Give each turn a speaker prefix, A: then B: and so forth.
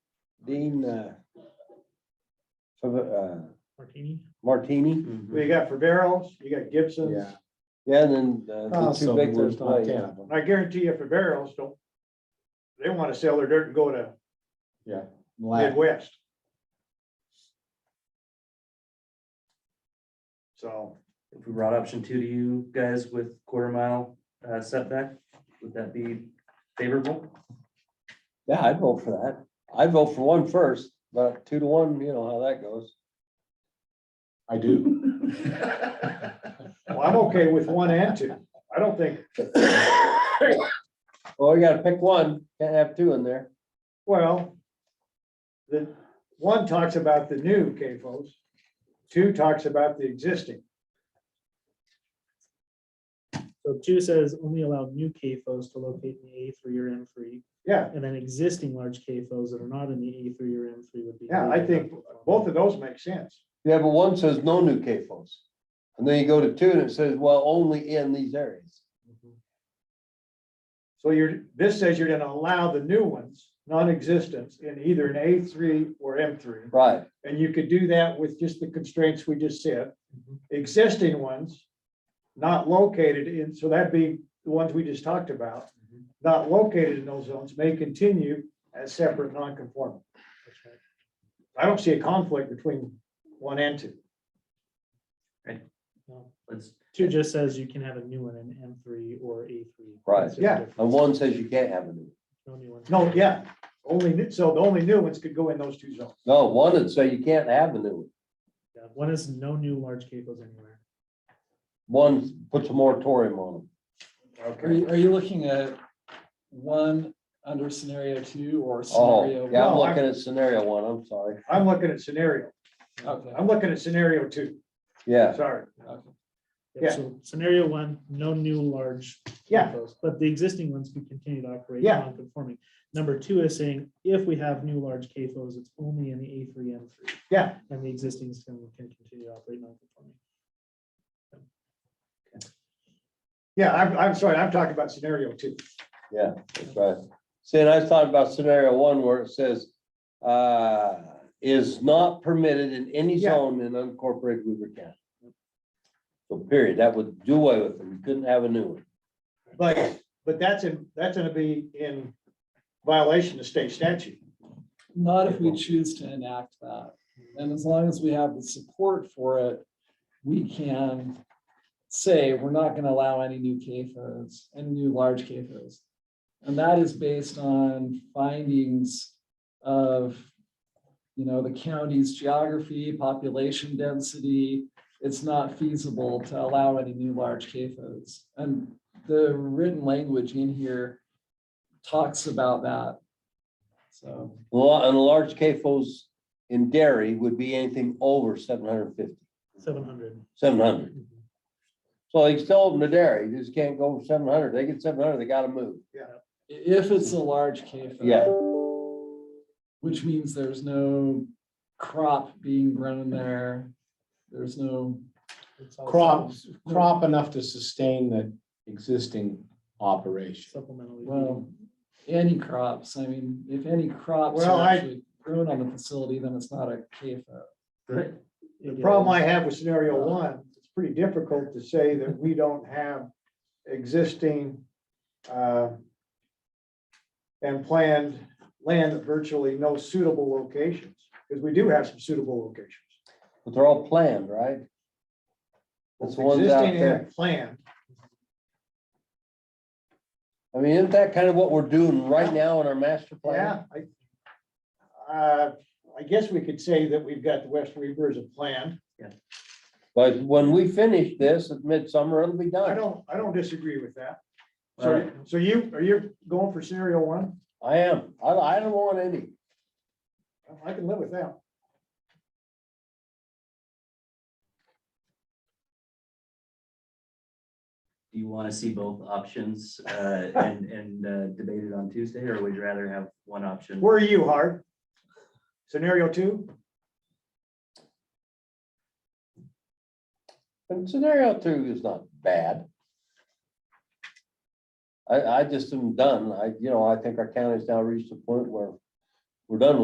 A: Dean, uh, so, uh,
B: Martini?
A: Martini.
C: Mm-hmm.
D: You got Faveros, you got Gibson's.
A: Yeah. Yeah, and then uh, the two
E: Also,
A: big
E: there's
A: ones
E: not
A: play.
E: ten
A: yeah.
E: of them.
D: And I guarantee you Faveros don't, they want to sell their dirt and go to
E: Lack-
D: Midwest. So,
C: If we brought option two to you guys with quarter mile uh, setback, would that be favorable?
A: Yeah, I'd vote for that. I'd vote for one first, but two to one, you know how that goes.
E: I do.
D: well, I'm okay with one and two. I don't think,
A: Well, you gotta pick one, can't have two in there.
D: well, the, one talks about the new CAFOs, two talks about the existing.
B: So two says only allow new KFOs to locate in the A three or M three,
D: Yeah,
B: and then existing large KFOs that are not in the A three or M three would be.
D: yeah, I think both of those make sense.
A: Yeah, but one says no new CAFOs. And then you go to two and it says, well, only in these areas.
D: So you're, this says you're gonna allow the new ones, non-existence, in either an A three or M three.
A: Right,
D: And you could do that with just the constraints we just said. Existing ones, not located in, so that'd be the ones we just talked about. Not located in those zones may continue as separate non-conforming. I don't see a conflict between one and two.
C: Let's,
B: Two just says you can have a new one in M three or A three.
A: Right.
D: Yeah.
A: and one says you can't have a new.
B: No new ones.
D: No, yeah, only, new- so the only new ones could go in those two zones.
A: No, one would say you can't have a new. one.
B: Yeah, One is no new large KFOs anywhere.
A: One puts a moratorium on them.
E: Are you, are you looking at one under scenario two or
A: Oh,
E: scenario?
A: yeah, I'm
D: No, I'm-
A: looking at scenario one, I'm sorry.
D: I'm looking at scenario,
E: Okay,
D: I'm looking at scenario two,
A: Yeah,
D: sorry.
E: okay.
B: Yep,
D: Yeah.
B: So scenario one, no new large.
D: Yeah.
B: KFOs, But the existing ones can continue to operate
D: Yeah.
B: non-conforming. Number two is saying if we have new large KFOs, it's only in the A three, M three.
D: Yeah.
B: And the existing can, can continue to operate non-conforming.
D: Yeah, I'm, I'm sorry, I'm talking about scenario two.
A: that's right. See, and I was talking about scenario one where it says, uh, is not permitted in any
D: Yeah.
A: zone in unincorporated Weaver County. So period, that would do away with it, we couldn't have a new one.
D: But, but that's in, that's gonna be in violation of state statute.
E: Not if we choose to enact that. And as long as we have the support for it, we can say we're not gonna allow any new CAFOs, any new large CAFOs. And that is based on findings of, you know, the county's geography, population density. It's not feasible to allow any new large CAFOs. And the written language in here talks about that. So.
A: Well, and large CAFOs in dairy would be anything over 750, 700.
B: Seven hundred.
D: Mm-hmm.
A: So they can still open the dairy, you just can't go seven hundred, they get seven hundred, they gotta move.
E: I- If it's a
C: Hmm.
E: large CAFO.
A: Yeah.
E: Which means there's no crop being grown there. There's no.
F: crops, crop enough to sustain the existing operation.
B: Supplementally.
E: Well, any crops. I mean, if any crops
D: Well,
E: are
D: I-
E: actually grown on the facility, then it's not a CAFO.
D: The problem I have with scenario one, it's pretty difficult to say that we don't have existing uh, and planned land at virtually no suitable locations, because we do have some suitable locations.
A: But they're all planned, right? That's the ones out
D: Existing
A: there.
D: and planned,
A: I mean, isn't that kind of what we're doing right now in our master plan?
D: yeah, I uh, I guess we could say that we've got the West Weaver as a plan.
A: But when we finish this at midsummer, it'll be
D: I
A: done.
D: don't, I don't disagree with that. So,
C: Alright.
D: so you, are you going for scenario one?
A: I am. I, I don't want any.
D: I can live with that.
C: do you want to see both options uh, and, and uh, debate it on Tuesday, or would you rather have one option?
D: Where are you, Hart? Scenario two?
A: And scenario two is not bad. I, I just am done. I, you know, I think our county's now reached a point where we're done with